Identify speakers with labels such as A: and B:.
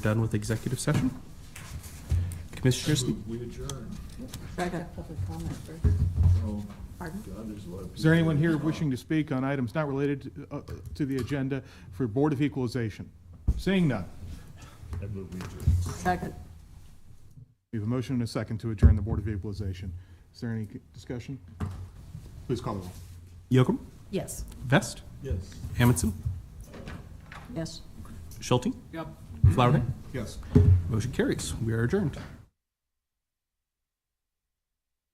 A: done with executive session. Commissioners,
B: We adjourn.
C: Second. Public comment first.
B: Oh,
C: Pardon?
B: God, there's a lot of
D: Is there anyone
B: people
D: here wishing to speak on items not related to, uh, to the agenda for Board of Equalization? Seeing none.
B: I move we adjourn.
C: Second.
D: We have a motion and a second to adjourn the Board of Equalization. Is there any discussion? Please call the roll.
A: Yocum,
C: Yes.
A: Vest,
B: Yes.
A: Amundson,
C: Yes.
A: Schulte. Yep. Flowerday.
D: Yes.
A: Motion carries. We are adjourned.